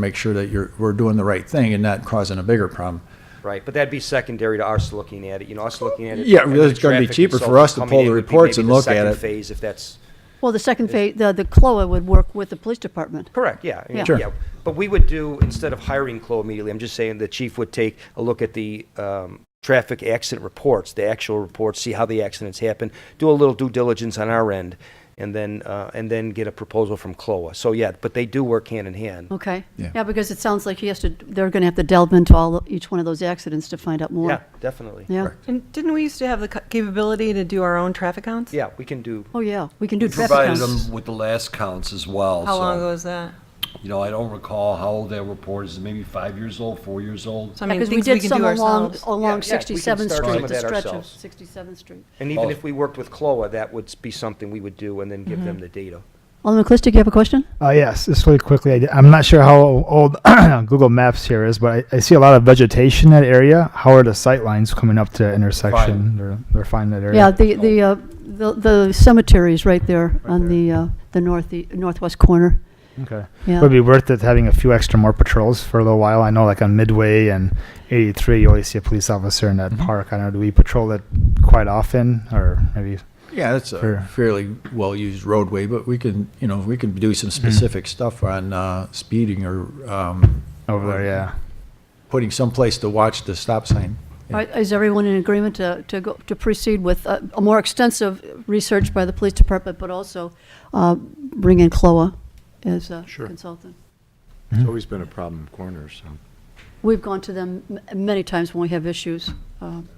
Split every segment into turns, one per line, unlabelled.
make sure that you're, we're doing the right thing and not causing a bigger problem.
Right, but that'd be secondary to us looking at it, you know, us looking at it.
Yeah,
and
well,
the
it's gonna be
traffic
cheaper for
consultant
us to
coming
pull
in
the
would be
reports and
maybe the
look at
second
it.
phase, if that's,
Well, the second phase, the, the CLOA would work with the police department.
correct, yeah. I mean,
Yeah. Sure.
yeah. But we would do, instead of hiring Chloe immediately, I'm just saying the chief would take a look at the um, traffic accident reports, the actual reports, see how the accidents happen, do a little due diligence on our end, and then, uh, and then get a proposal from Chloe. So, yeah, but they do work hand in hand.
Okay.
Yeah.
Yeah, because it sounds like he has to, they're going to have to delve into all, each one of those accidents to find out more.
Yeah, definitely.
Yeah.
And didn't we used to have the ca- capability to do our own traffic counts?
Yeah, we can do,
Oh, yeah, we can do traffic
Provided
counts.
them with the last counts as well.
How
so,
long ago was that?
You know, I don't recall how old that report is, maybe five years old, four years old.
So I mean,
Because we
things
did
can
some
do
along,
ourselves.
along
Yeah, yeah, we can
67th
start some
Street,
of
the
that
stretch of
ourselves.
67th Street.
and even
Oh.
if we worked with Chloe, that would be something we would do and then give them the data.
Alderman Clistic, you have a question?
Uh, yes, just really quickly, I, am not sure how old Google Maps here is, but I, I see a lot of vegetation in that area. How are the sight lines coming up to that intersection? They're, they're fine in that area.
Yeah, the, the, uh, the the cemetery's right there on the, uh, the north, northwest corner.
Okay.
Yeah.
Would it be worth it having a few extra more patrols for a little while? I know, like on Midway and 83, you always see a police officer in that
Mm-hmm.
park. I don't know. Do we patrol that quite often, or maybe?
Yeah, that's a
Sure.
fairly well-used roadway, but we can, you know, we can do some
Mm-hmm.
specific stuff on, uh, speeding or, um,
Over there, yeah.
putting someplace to watch the stop sign.
All right, Is everyone in agreement to, to go, to proceed with uh, a more extensive research by the police department, but also uh, bring in CLOA as a consultant?
It's always been a problem in corners, so.
We've gone to them m- many times when we have issues. um,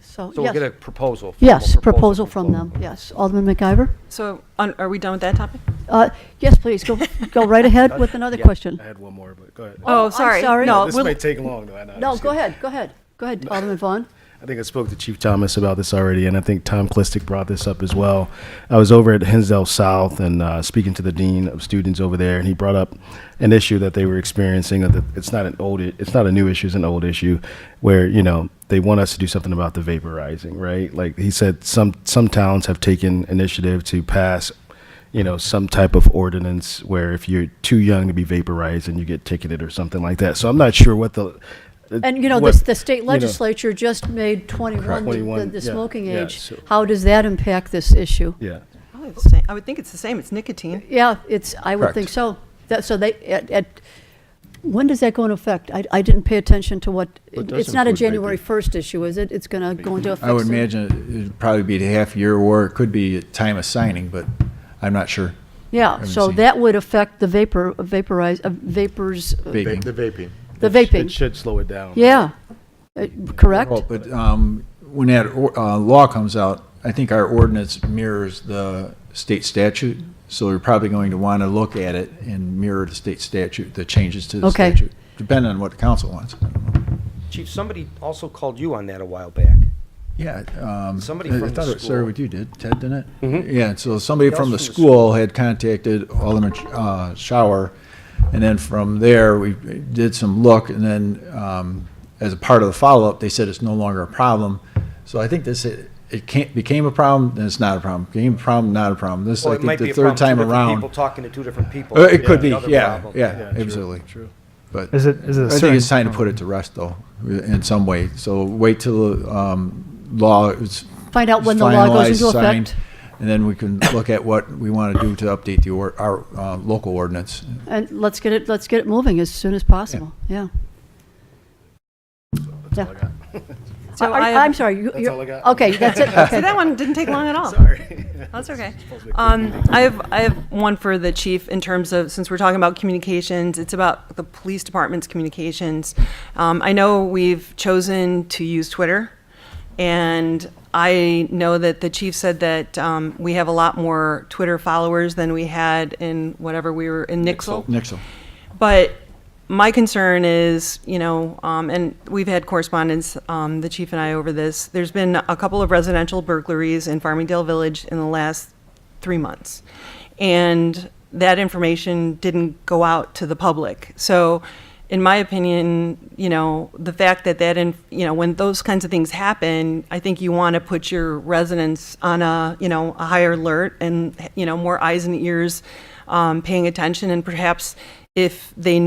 So,
So we'll get a
yes,
proposal. formal
yes, proposal from
Chloe.
them, yes. Alderman McIver?
So on, are we done with that topic?
Uh, Yes, please, go, go right ahead with another
Yeah.
question.
I had one more, but go ahead.
Oh,
Oh,
I'm
sorry.
sorry.
No,
This
we'll-
might take long, though. I know. I'm
No,
just
go
kidding.
ahead, go ahead. Go ahead, Alderman Vaughn.
I think I spoke to Chief Thomas about this already, and I think Tom Klistick brought this up as well. I was over at Hinsdale South and uh, speaking to the dean of students over there, and he brought up an issue that they were experiencing. That it's not an old, it's not a new issue; it's an old issue, where you know they want us to do something about the vaporizing, right? Like he said, some some towns have taken initiative to pass you know, some type of ordinance where if you're too young to be vaporized and you get ticketed or something like that. So I'm not sure what the.
And, you know,
what-
the, the state
you know,
legislature just made 21 the- the,
21,
the
yeah,
smoking
yeah,
age.
so-
How does that impact this issue?
Yeah.
Probably the same. I would think it's the same. It's nicotine.
Yeah, it's, I would
Correct.
think so. That, so they, at, at- when does that go into effect? I, I didn't pay attention to what,
It does
it's not a
include vaping.
January 1st issue, is it? It's gonna go into effect
I would
soon?
imagine it- it'd probably be a half year, or it could be at time of signing, but I'm not sure.
Yeah,
haven't
so
seen it.
that would affect the vapor, vaporize, uh, vapors, uh,
Big.
The vaping.
The
It sh-
vaping.
It should slow it down.
yeah, Uh, correct?
Well, But um, when that or- uh, law comes out, I think our ordinance mirrors the state statute, so we're probably going to want to look at it and mirror the state statute, the changes to the
Okay.
statute, depending on what the council wants. I don't know.
Chief, somebody also called you on that a while back.
Yeah. um,
Somebody
I
from
I
the
thought it
school. Mm-hmm.
started with you, did, Ted, didn't it? Yeah, and so somebody from the
Somebody else from the school.
school had contacted Alderman uh, Shower, and then from there, we did some look, and then um, as a part of the follow-up, they said it's no longer a problem. So I think this, it it can't, became a problem, then it's not a problem, became a problem, not a problem. This,
Well,
I
it
think,
might be
the
a problem,
third
two
time
different People
around.
talking to two different people.
Uh, It could be,
Another
yeah,
problem.
yeah,
true,
absolutely.
True.
But
Is it? Is it? a
I think
certain-
it's time to put it to rest, though, in some way. So wait till um, law is
Find out when the law
finalized,
goes into
signed,
effect.
And then we can look at what we want to do to update the, or- our uh, local ordinance.
And let's get it, let's get it moving as soon as possible, yeah. Yeah.
So
I-
I
I-
have-
I'm sorry, you,
That's
you're,
all I got.
okay, that's it,
See,
okay.
that one didn't take long at all.
Sorry.
That's okay. Um, I have, I have one for the chief in terms of, since we're talking about communications, it's about the police department's communications. Um, I know we've chosen to use Twitter, and I know that the chief said that, um, we have a lot more Twitter followers than we had in whatever we were, in Nixle.
Nixle.
But my concern is, you know, um, and we've had correspondence, um, the chief and I over this. There's been a couple of residential burglaries in Farmingdale Village in the last three months. And that information didn't go out to the public. So, in my opinion, you know, the fact that that, in, you know, when those kinds of things happen, I think you want to put your residents on a, you know, a higher alert and, you know, more eyes and ears um, paying attention. And perhaps if they